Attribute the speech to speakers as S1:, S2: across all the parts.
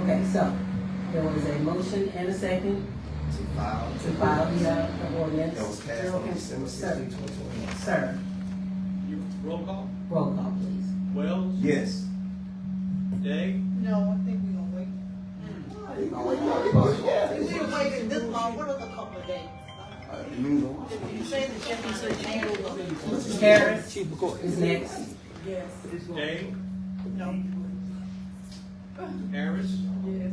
S1: Okay, so there was a motion and a second
S2: to file.
S1: to file the, uh, the ordinance.
S2: That was passed on December sixteenth, twenty twenty.
S1: Sir,
S3: You roll call?
S1: roll call please.
S3: Wells?
S2: Yes.
S3: Day?
S4: No, I think we gonna wait. If we waited this long, what are the couple of days?
S2: Uh,
S4: You say the Jefferson said Chamber was
S1: Mrs. Harris is next.
S3: Day?
S4: No.
S3: Harris?
S5: Yes.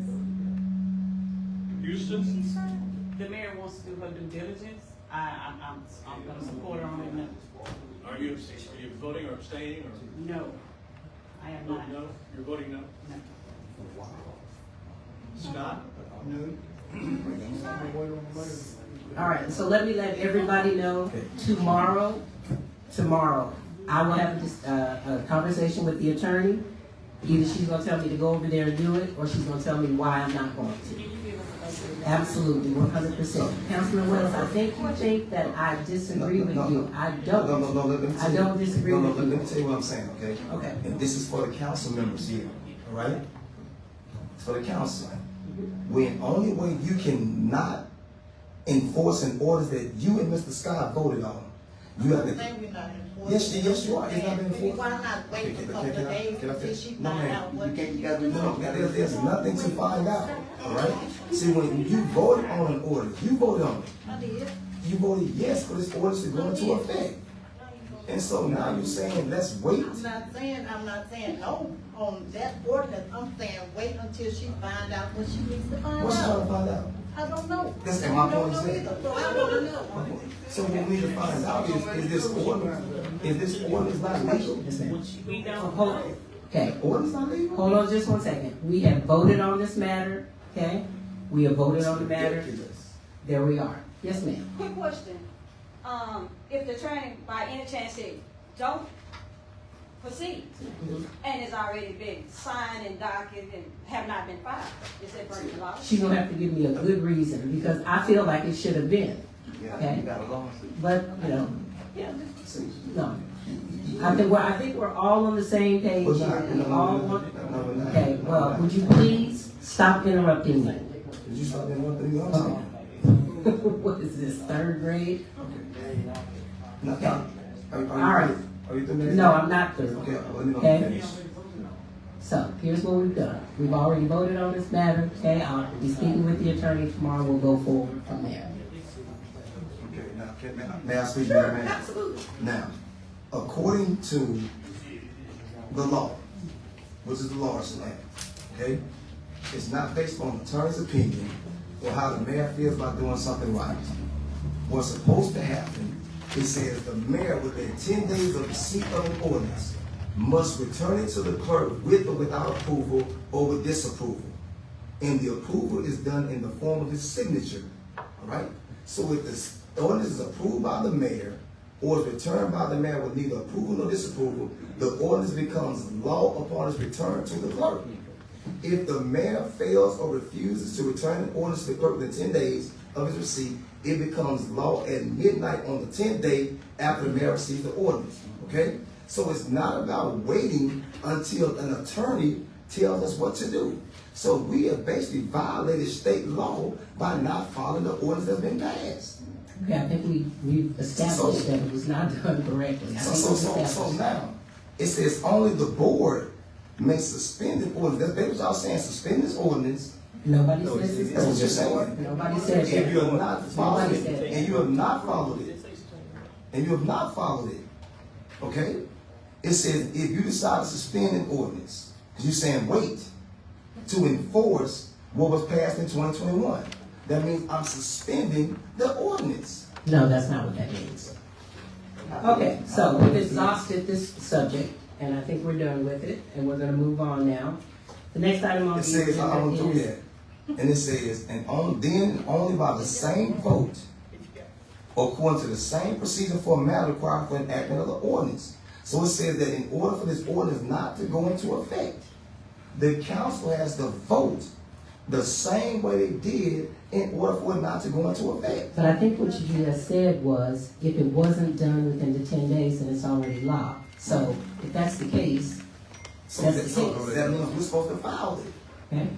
S3: Houston?
S5: The mayor wants to do her due diligence. I, I'm, I'm, I'm gonna support her on it. No.
S3: Are you, are you voting or abstaining or?
S5: No, I am not.
S3: No, you're voting no?
S5: No.
S3: Scott?
S1: All right, so let me let everybody know tomorrow, tomorrow, I will have a dis- uh, a conversation with the attorney. Either she's gonna tell me to go over there and do it, or she's gonna tell me why I'm not going to.
S5: Can you give us a update?
S1: Absolutely, one hundred percent. Councilman Wells, I think you think that I disagree with you. I don't.
S2: No, no, no, let me
S1: I
S2: tell you.
S1: don't disagree
S2: No, no,
S1: with you.
S2: Let me tell you what I'm saying, okay?
S1: Okay.
S2: And this is for the council members here, all right? It's for the council. When, only way you cannot enforce an order that you and Mr. Scott voted on, you have to,
S4: Say we're not enforcing.
S2: Yes, yes, you are. It's not been enforced.
S4: Why not wait a
S2: Can- can-
S4: couple of
S2: can I-
S4: days
S2: can I
S4: till
S2: finish?
S4: she
S2: No,
S4: find
S2: ma'am.
S4: out
S2: You
S4: what?
S2: can't-
S4: she-
S2: you gotta do- No, no, there's, there's nothing to find out, all right? See, when you voted on an order, you voted on it,
S4: I did.
S2: you voted yes for this order to go into effect. And so now you're saying, let's wait.
S4: I'm not saying, I'm not saying no on that ordinance. I'm saying wait until she find out what she needs to find
S2: What's trying to
S4: out.
S2: find out?
S4: I don't know.
S2: That's what my
S4: I don't
S2: point
S4: know
S2: is.
S4: either, So I wanna know.
S2: So what we need to find out is, is this order, is this order is not legal?
S5: We don't
S1: Hold-
S5: know.
S1: Okay,
S2: Order's not legal?
S1: hold on just one second. We have voted on this matter, okay? We have voted on the matter.
S2: Ridiculous.
S1: There we are. Yes, ma'am.
S6: Quick question, um, if the attorney by any chance said, don't proceed, and it's already been signed and docketed and have not been filed, is that burning the law?
S1: She's gonna have to give me a good reason, because I feel like it should have been,
S2: Yeah,
S1: Okay.
S2: you got a lawsuit.
S1: but, you know,
S2: See,
S1: no. I think, we're I think we're all on the same page.
S2: We're not,
S1: here.
S2: no,
S1: We all
S2: no, no,
S1: want-
S2: no, no, no.
S1: Okay, well, would you please stop interrupting me?
S2: Did you stop that one thing I'm
S1: Okay.
S2: saying?
S1: What is this, third grade?
S2: No, no. Are you- are you-
S1: All right.
S2: Are you through that?
S1: No, I'm not third
S2: Okay,
S1: grade.
S2: well, you know,
S1: Okay.
S2: finish.
S1: So, here's what we've done. We've already voted on this matter, okay? I'll be speaking with the attorney tomorrow, we'll go forward from there.
S2: Okay, now, can, may I- may I speak, Madam Mayor? Now, according to the law, which is the lawyer's land, okay? It's not based on attorney's opinion or how the mayor feels about doing something right. What's supposed to happen, it says the mayor within ten days of receipt of an ordinance must return it to the clerk with or without approval or with disapproval and the approval is done in the form of his signature, all right? So if this ordinance is approved by the mayor or is returned by the mayor with neither approval nor disapproval, the ordinance becomes law upon its return to the clerk. If the mayor fails or refuses to return an ordinance to the clerk within ten days of his receipt, it becomes law at midnight on the tenth day after the mayor receives the ordinance, okay? So it's not about waiting until an attorney tells us what to do. So we have basically violated state law by not following the ordinance that's been passed.
S1: Okay, I think we, we established
S2: So-
S1: that it was not done correctly. I
S2: So,
S1: think
S2: so,
S1: we've
S2: so, so
S1: established-
S2: now, it says only the board may suspend the ordinance. That's basically what y'all saying, suspend this ordinance.
S1: Nobody
S2: No,
S1: says
S2: that's what you're
S1: it's
S2: saying.
S1: Nobody says
S2: If you
S1: that.
S2: have not followed
S1: Nobody
S2: it,
S1: said that.
S2: and you have not followed it, and you have not followed it, okay? It says, if you decide to suspend an ordinance, because you're saying wait to enforce what was passed in twenty twenty-one, that means I'm suspending the ordinance.
S1: No, that's not what that means. Okay, so we've exhausted this subject, and I think we're done with it, and we're gonna move on now. The next item on
S2: It
S1: the
S2: says, I don't
S1: agenda
S2: do
S1: is.
S2: that. And it says, and on, then and only by the same vote, according to the same procedure for a matter required for enactment of the ordinance. So it says that in order for this ordinance not to go into effect, the council has to vote the same way they did in order for it not to go into effect.
S1: But I think what you just said was, if it wasn't done within the ten days, then it's already law. So if that's the case,
S2: So
S1: That's
S2: that, so
S1: the case.
S2: that means we're supposed to file it.
S1: okay?